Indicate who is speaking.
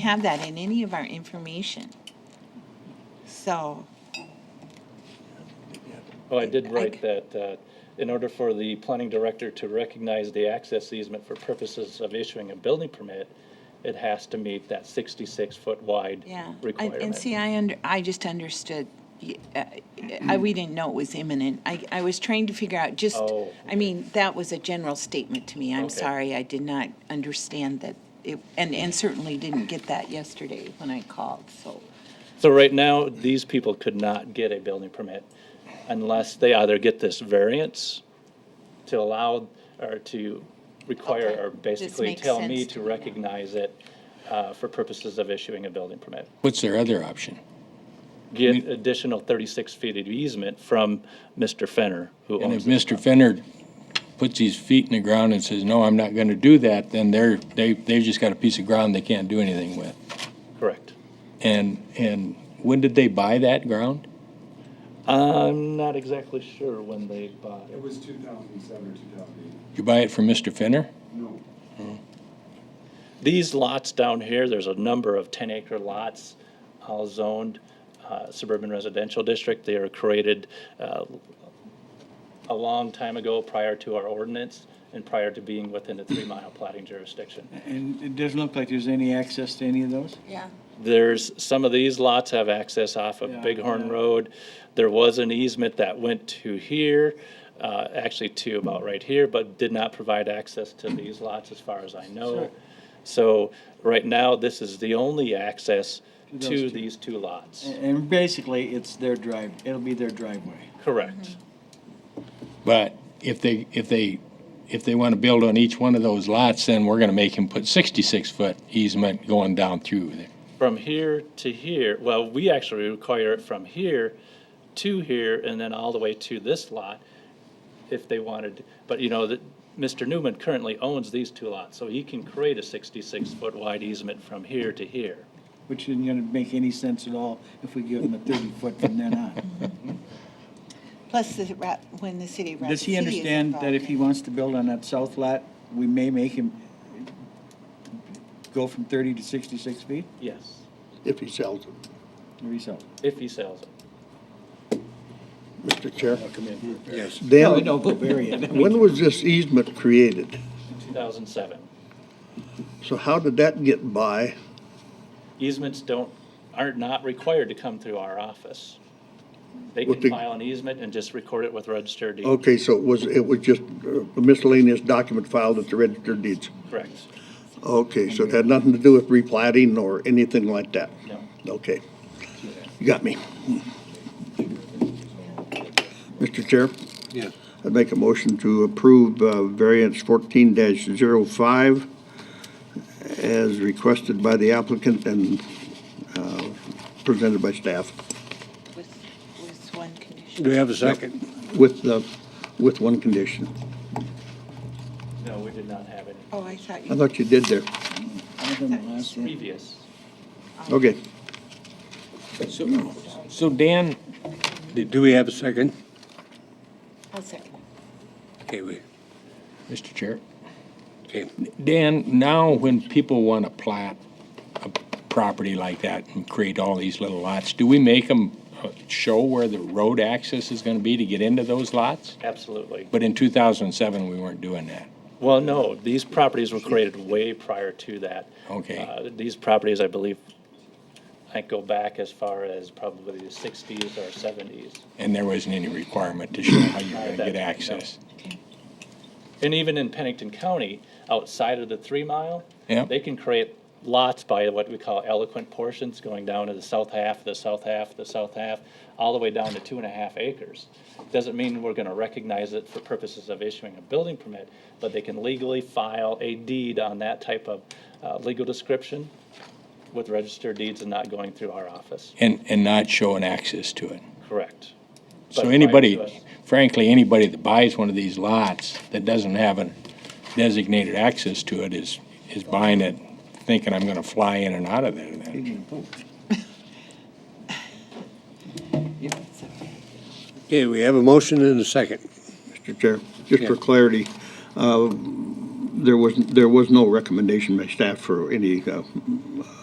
Speaker 1: have that in any of our information. So,
Speaker 2: Oh, I did write
Speaker 1: I-
Speaker 2: that, uh, in order for the planning director to recognize the access easement for purposes of issuing a building permit, it has to meet that sixty-six foot wide
Speaker 1: yeah. I- And see,
Speaker 2: requirement.
Speaker 1: I under, I just understood, y- uh, I,
Speaker 2: Hmm.
Speaker 1: we didn't know it was imminent. I, I was trying to figure out just,
Speaker 2: Oh,
Speaker 1: I mean, that was a general statement to me. I'm
Speaker 2: Okay.
Speaker 1: sorry, I did not understand that. It, and, and certainly didn't get that yesterday when I called, so.
Speaker 2: So right now, these people could not get a building permit unless they either get this variance to allow, or to require,
Speaker 1: Okay.
Speaker 2: or
Speaker 1: This
Speaker 2: basically
Speaker 1: makes
Speaker 2: tell me
Speaker 1: sense
Speaker 2: to
Speaker 1: to me now.
Speaker 2: recognize it, uh, for purposes of issuing a building permit.
Speaker 3: What's their other option?
Speaker 2: Get additional thirty-six feet of easement from Mr. Fenner, who
Speaker 3: And
Speaker 2: owns
Speaker 3: if
Speaker 2: this
Speaker 3: Mr. Fenner puts his feet in the ground and says, no, I'm not gonna do that, then they're, they, they've just got a piece of ground they can't do anything with.
Speaker 2: Correct.
Speaker 3: And, and when did they buy that ground?
Speaker 2: I'm not exactly sure when they bought
Speaker 4: It
Speaker 2: it.
Speaker 4: was 2007 or 2008.
Speaker 3: Did you buy it from Mr. Fenner?
Speaker 4: No,
Speaker 2: These lots down here, there's a number of 10-acre lots, all zoned uh, suburban residential district. They were created uh, a long time ago prior to our ordinance and prior to being within the three-mile plating jurisdiction.
Speaker 5: And it doesn't look like there's any access to any of those?
Speaker 1: Yeah.
Speaker 2: There's, some of these lots have access off of
Speaker 5: Yeah,
Speaker 2: Bighorn
Speaker 5: yeah.
Speaker 2: Road. There was an easement that went to here, uh, actually to about right here, but did not provide access to these lots as far as I know.
Speaker 5: Sure.
Speaker 2: So right now, this is the only access to
Speaker 5: those two.
Speaker 2: these two lots.
Speaker 5: And basically, it's their drive, it'll be their driveway.
Speaker 2: Correct.
Speaker 3: But if they, if they, if they wanna build on each one of those lots, then we're gonna make him put sixty-six foot easement going down through there.
Speaker 2: From here to here, well, we actually require it from here to here and then all the way to this lot if they wanted, but you know, that Mr. Newman currently owns these two lots, so he can create a sixty-six foot wide easement from here to here.
Speaker 5: Which isn't gonna make any sense at all if we give them a thirty foot from then on.
Speaker 1: Plus, the, ra- when the city. of Rapid
Speaker 5: Does he
Speaker 1: City is
Speaker 5: understand that if he
Speaker 1: involved
Speaker 5: wants to build on that south lot, we may make him go from thirty to sixty-six feet?
Speaker 2: Yes,
Speaker 6: if he sells them.
Speaker 5: Or he's out?
Speaker 2: if he sells it.
Speaker 6: Mr. Chair?
Speaker 5: Yes. No,
Speaker 6: Dan,
Speaker 5: no, go bury it.
Speaker 6: when was this easement created?
Speaker 2: Two thousand seven.
Speaker 6: So how did that get by?
Speaker 2: Easements don't, are not required to come through our office. They
Speaker 6: What
Speaker 2: can
Speaker 6: the-
Speaker 2: file an easement and just record it with registered deed.
Speaker 6: Okay, so it was, it was just uh, a miscellaneous document filed at the register of deeds.
Speaker 2: Correct,
Speaker 6: Okay, so it had nothing to do with replating or anything like that?
Speaker 2: no.
Speaker 6: Okay. You got me. Mr. Chair?
Speaker 7: Yes.
Speaker 6: I'd make a motion to approve uh, variance fourteen 5 as requested by the applicant and uh, presented by staff
Speaker 1: With, with one condition.
Speaker 7: Do we have a second?
Speaker 6: with the, with one condition.
Speaker 2: No, we did not have any
Speaker 1: Oh, I thought
Speaker 6: I
Speaker 1: you,
Speaker 6: thought you did there.
Speaker 5: I don't know, last one.
Speaker 2: previous.
Speaker 6: Okay.
Speaker 7: So,
Speaker 3: So Dan,
Speaker 7: Do we have a second?
Speaker 1: I'll second.
Speaker 7: Okay, we,
Speaker 3: Mr. Chair?
Speaker 7: okay.
Speaker 3: Dan, now when people want to plat a property like that and create all these little lots, do we make them show where the road access is going to be to get into those lots?
Speaker 2: Absolutely.
Speaker 3: But in 2007, we weren't doing that.
Speaker 2: Well, no, these properties were created way prior to that.
Speaker 3: Okay.
Speaker 2: Uh, These properties, I believe, I go back as far as probably the 60s or 70s.
Speaker 3: And there wasn't any requirement to show how you're
Speaker 2: Not
Speaker 3: going
Speaker 2: at
Speaker 3: to
Speaker 2: that time,
Speaker 3: get
Speaker 2: no.
Speaker 3: access.
Speaker 2: And even in Pennington County, outside of the three mile,
Speaker 3: Yep.
Speaker 2: they can create lots by what we call eloquent portions, going down to the south half, the south half, the south half, all the way down to two and a half acres. Doesn't mean we're gonna recognize it for purposes of issuing a building permit, but they can legally file a deed on that type of, uh, legal description with registered deeds and not going through our office.
Speaker 3: And, and not showing access to it.
Speaker 2: Correct. But
Speaker 3: So
Speaker 2: prior to us-
Speaker 3: anybody, frankly, anybody that buys one of these lots that doesn't have a designated access to it is, is buying it thinking I'm going to fly in and out of there then.
Speaker 7: Okay, we have a motion and a second.
Speaker 6: Mr. Chair, just for
Speaker 7: Yeah.
Speaker 6: clarity, uh, there was, there was no recommendation by staff for any uh,